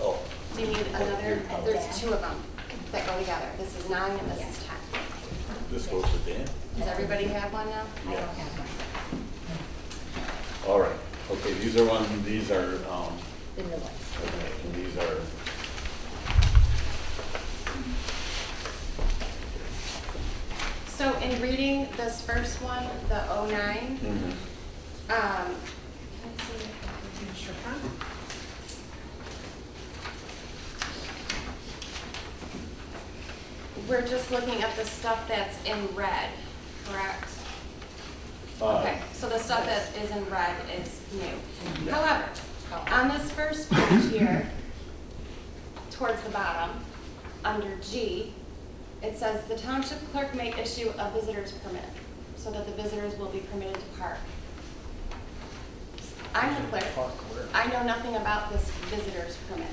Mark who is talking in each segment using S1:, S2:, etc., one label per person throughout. S1: oh,
S2: need another, there's two of them that go together. This is nine and this is 10.
S1: This goes to Dan?
S2: Does everybody have one now?
S1: Yeah. All right, okay, these are one, these are, um,
S3: The new ones.
S1: okay, and these are.
S2: So in reading this first one, the oh nine,
S1: mhm.
S2: um, let's see, I'm sure, huh? We're just looking at the stuff that's in red, correct?
S1: Uh,
S2: Okay, so the stuff that is in red is new.
S1: Yeah.
S2: However, on this first page here, towards the bottom, under G, it says the township clerk may issue a visitor's permit so that the visitors will be permitted to park. I'm the clerk. I know nothing about this visitor's permit.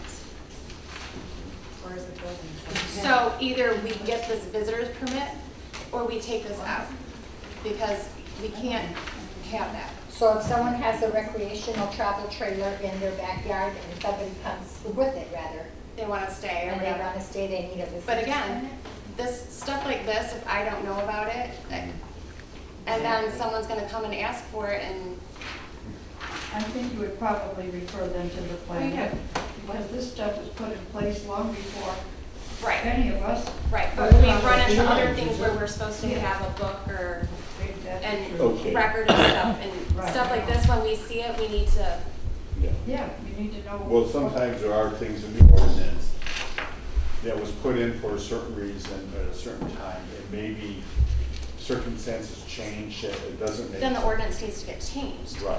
S3: Or is it building?
S2: So either we get this visitor's permit or we take this out because we can't have that.
S3: So if someone has a recreational travel trailer in their backyard and somebody comes with it rather,
S2: They want to stay or
S3: and they
S2: whatever.
S3: wanna stay, they need a visitor's
S2: But again,
S3: permit?
S2: this, stuff like this, if I don't know about it, like, and then someone's gonna come and ask for it and,
S4: I think you would probably refer them to the
S2: Oh,
S4: planner, because this stuff was put in place long before
S2: right,
S4: any of us.
S2: right. But we run into
S4: Yeah.
S2: other things where we're supposed to have a book or,
S4: Exactly.
S1: Okay.
S2: and record and stuff. And
S4: Right.
S2: stuff like this, when we see it, we need to,
S1: Yeah.
S4: Yeah, you need to know.
S1: Well, sometimes there are things in the ordinance that was put in for a certain reason at a certain time, and maybe circumstances change, and it doesn't make.
S2: then the ordinance needs to get changed.
S1: Right.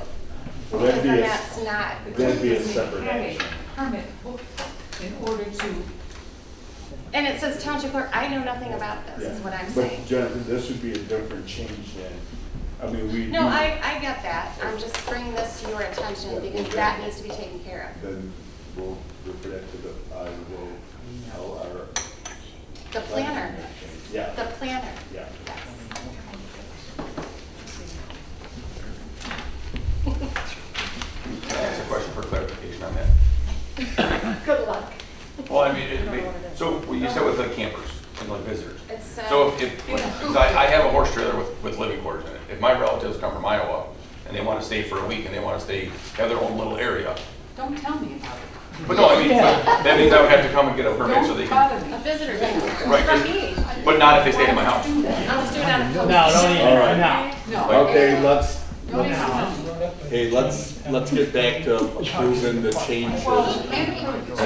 S1: Well,
S2: Because
S1: that'd be
S2: then
S1: a-
S2: that's not,
S1: That'd be a separate
S5: Have a
S1: action.
S5: Permit book in order to,
S2: and it says township clerk, I know nothing about this, is
S1: Yeah.
S2: what I'm
S1: But
S2: saying.
S1: Jennifer, this would be a different change than, I mean, we.
S2: No,
S1: do-
S2: I, I get that. I'm just bringing this to your attention because that needs to be taken care of.
S1: Then we'll refer that to the, I will tell our.
S2: The planner, the
S1: Yeah,
S2: planner.
S1: yeah.
S2: Yes.
S6: Can I ask a question for clarification on that?
S3: Good luck.
S6: Well, I mean, it'd be, so what you said with like campers and like visitors.
S2: It's,
S6: So
S2: uh,
S6: if, if, because I, I have a horse trailer with, with living quarters in it. If my relatives come from Iowa and they want to stay for a week and they want to stay, have their own little area.
S5: don't tell me about it.
S6: But no, I mean, but that means I would have to come and get a permit so they
S5: Don't
S6: can,
S5: bother
S2: a
S5: me.
S2: visitor center.
S6: Right,
S2: From
S6: 'cause-
S2: me.
S6: but not if they stayed at my house.
S5: Do that.
S2: I'll just do it on a
S7: No,
S2: post.
S7: don't
S1: All
S7: even,
S1: right.
S7: no.
S5: No.
S1: Okay, let's,
S5: No,
S1: let's-
S5: no, no.
S1: hey, let's, let's get back to approving the changes.
S5: Well, and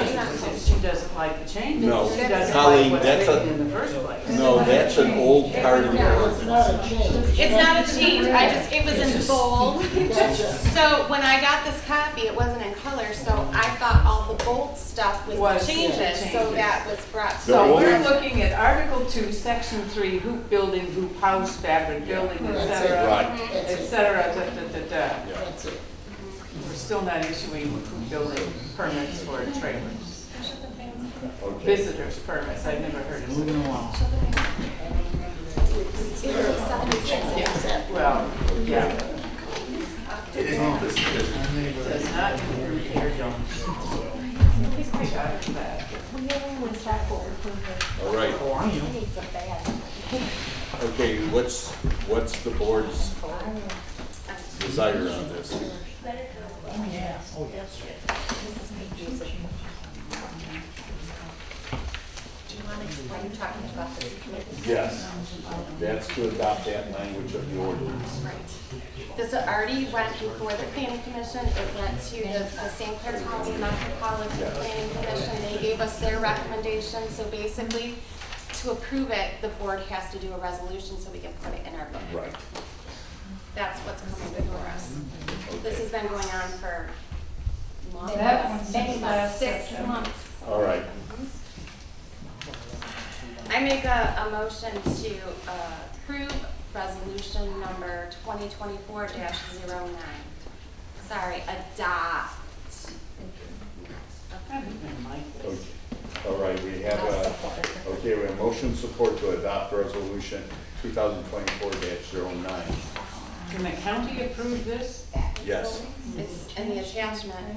S5: she's not saying she doesn't like the changes.
S1: No.
S5: She doesn't
S1: Colleen,
S5: like what's
S1: that's a-
S5: written in the first place.
S1: No, that's an old part of the ordinance.
S2: It's not a change, I just, it was in bold. So when I got this copy, it wasn't in color, so I thought all the bold stuff was the
S5: Was the
S2: changes, so
S5: changes.
S2: that was brought.
S1: No,
S5: So
S1: what
S5: we're
S1: we-
S5: looking at Article Two, Section Three, hoop building, hoop house, fabric building, et cetera,
S1: Right,
S5: et cetera, da, da, da, da.
S1: yeah.
S5: We're still not issuing hoop building permits for trailers,
S1: Okay.
S5: visitors permits, I've never heard of it.
S7: Moving along.
S5: Well, yeah,
S6: It is implicit, there's-
S5: it does not include air domes. I got that.
S1: All right,
S7: How are you?
S3: I need some bags.
S1: okay, what's, what's the board's desire on this?
S7: Oh, yeah. Oh, yes.
S3: Do you wanna explain, you're talking about the committee?
S1: Yes, that's to adopt that language of the ordinance.
S2: This already went before the planning commission, it went to the, the St. Clair County Metropolitan Planning Commission, they gave us their recommendation, so basically, to approve it, the board has to do a resolution so we can put it in our book.
S1: Right.
S2: That's what's coming before us. This has been going on for long,
S4: That one's
S3: Many
S4: last
S2: six
S4: September.
S2: months.
S1: All right,
S2: I make a, a motion to uh, approve resolution number twenty twenty-four 9 Sorry, adopt.
S5: I didn't like
S1: okay,
S5: this.
S1: all right, we have a, okay, we have motion support to adopt resolution two thousand twenty-four 9
S5: Can the county approve this?
S1: Yes.
S2: It's in the attachment.